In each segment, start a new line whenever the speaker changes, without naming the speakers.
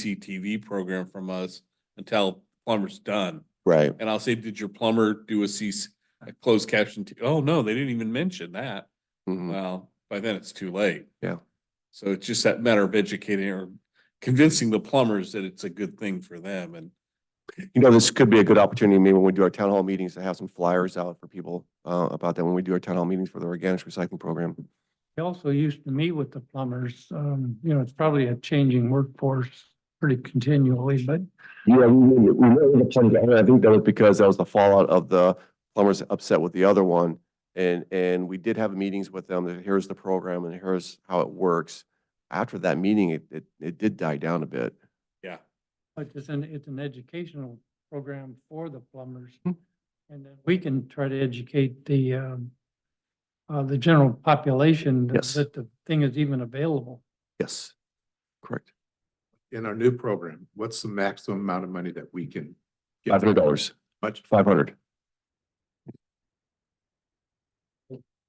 CCTV program from us until plumber's done.
Right.
And I'll say, did your plumber do a CC, a closed caption? t- Oh, no, they didn't even mention that.
Mhm.
Well, by then it's too late.
Yeah.
So it's just that matter of educating or convincing the plumbers that it's a good thing for them and
You know, this could be a good opportunity, maybe when we do our town hall meetings, to have some flyers out for people uh, about that, when we do our town hall meetings for the organics recycling program.
I also used to meet with the plumbers. Um, you know, it's probably a changing workforce pretty continually, but
Yeah, we, we- we know the plumbers, and I think that was because that was the fallout of the plumbers upset with the other one. And, and we did have meetings with them, that here's the program and here's how it works. After that meeting, it, it, it did die down a bit.
Like it's an, it's an educational program for the plumbers.
Hmm.
And then we can try to educate the, um, uh, the general population that-
Yes.
that the thing is even available.
Yes, correct.
in our new program, what's the maximum amount of money that we can? give
Five hundred
them?
dollars,
Much,
five hundred.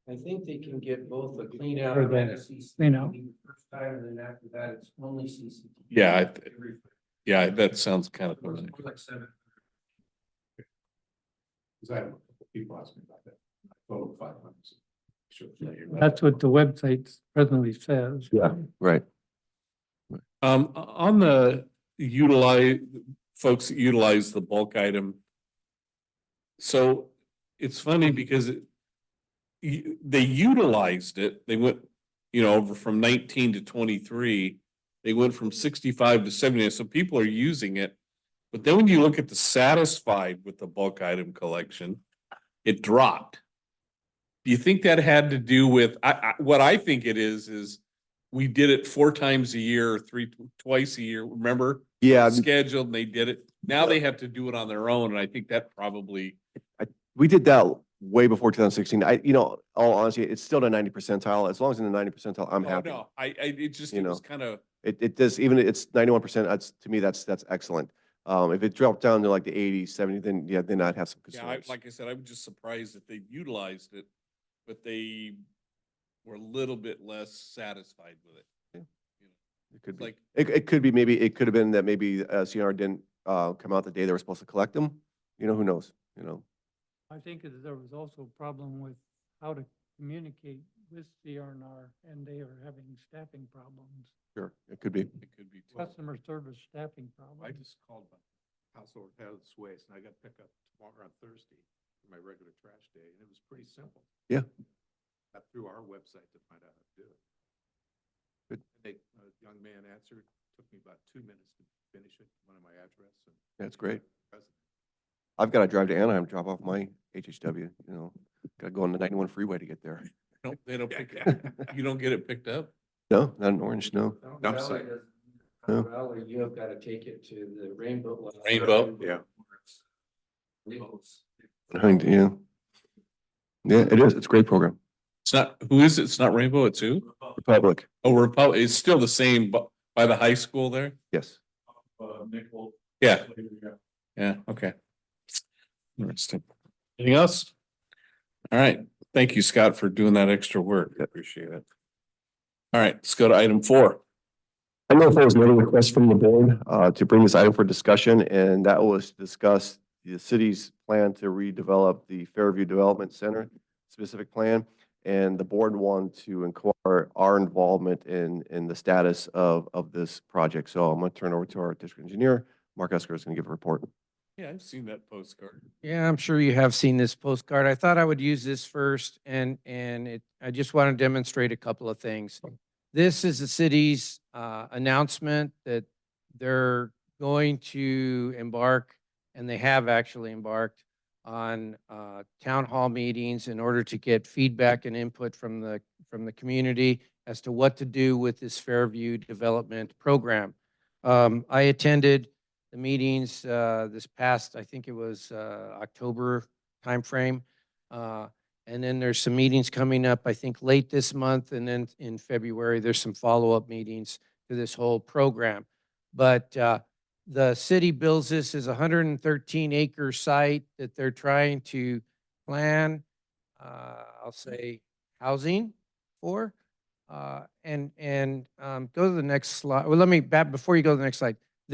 I think they can get both the cleanout
Or the
and the CCTV.
cleanout.
First time, and then after that, it's only CCTV.
Yeah, I th- yeah, that sounds kind of.
It was more like seven.
because I have a couple people ask me about that. I told them five hundred. Sure.
That's what the website presently says.
Yeah. Right.
Um, o- on the utilize, folks that utilize the bulk item. So it's funny because it. You, they utilized it, they went, you know, over from nineteen to twenty-three. They went from sixty-five to seventy, so people are using it. But then when you look at the satisfied with the bulk item collection, it dropped. Do you think that had to do with, I, I, what I think it is, is we did it four times a year, three, twice a year, remember?
Yeah,
Scheduled and they did it. Now they have to do it on their own and I think that probably,
we did that way before two thousand sixteen. I, you know, all honesty, it's still the ninety percentile. As long as in the ninety percentile, I'm
oh
happy.
no, I, I, it just,
You
it was
know.
kind of,
It, it does, even if it's ninety-one percent, that's, to me, that's, that's excellent. Um, if it dropped down to like the 80, 70, then, yeah, then I'd have some
yeah, I,
concerns.
like I said, I was just surprised that they utilized it, but they were a little bit less satisfied with it.
It could
It's
be,
Like,
it, it could be, maybe, it could have been that maybe, uh, CNR didn't, uh, come out the day they were supposed to collect them. You know, who knows, you know?
I think that there was also a problem with how to communicate with CRNR and they are having staffing problems,
Sure. It could be.
it could be. too.
customer service staffing problems.
I just called my household hazardous waste and I got pickup tomorrow on Thursday for my regular trash day and it was pretty simple.
Yeah.
Got through our website to find out how to do it.
Good.
And They, a young man answered, took me about two minutes to finish it, one of my address and.
That's great.
Present.
I've got to drive to Anaheim, drop off my HHW, you know, got to go on the ninety-one freeway to get there.
No, they don't pick it.
Yeah.
You don't get it picked up?
No, not in Orange, no.
Fountain
Dump
Valley
site.
doesn't-
No.
Fountain Valley, you have got to take it to the Rainbow. Lodge.
Rainbow.
Yeah.
Legals.
Yeah. Yeah, it is. It's a great program.
It's not, who is it? It's not Rainbow, it's who?
Republic,
Oh, Republic, it's still the same bu- by the high school there?
yes.
Yeah. Yeah, okay. Interesting. Anything else? All right, thank you, Scott, for doing that extra work. I Appreciate it. All right, let's go to item four.
I know there was another request from the board uh, to bring this item for discussion, and that was to discuss the city's plan to redevelop the Fairview Development Center specific plan. And the board wanted to inquire our involvement in, in the status of, of this project. So I'm going to turn over to our district engineer. Mark Esker is going to give a report.
Yeah, I've seen that postcard.
Yeah, I'm sure you have seen this postcard. I thought I would use this first and, and it, I just want to demonstrate a couple of things. This is the city's, uh, announcement that they're going to embark, and they have actually embarked on, uh, town hall meetings in order to get feedback and input from the, from the community as to what to do with this Fairview Development Program. Um, I attended the meetings, uh, this past, I think it was, uh, October timeframe. Uh, and then there's some meetings coming up, I think late this month, and then in February, there's some follow-up meetings to this whole program. But, uh, the city builds this as a hundred and thirteen acre site that they're trying to plan, uh, I'll say housing for. Uh, and, and, um, go to the next slide. Well, let me, back, before you go to the next slide,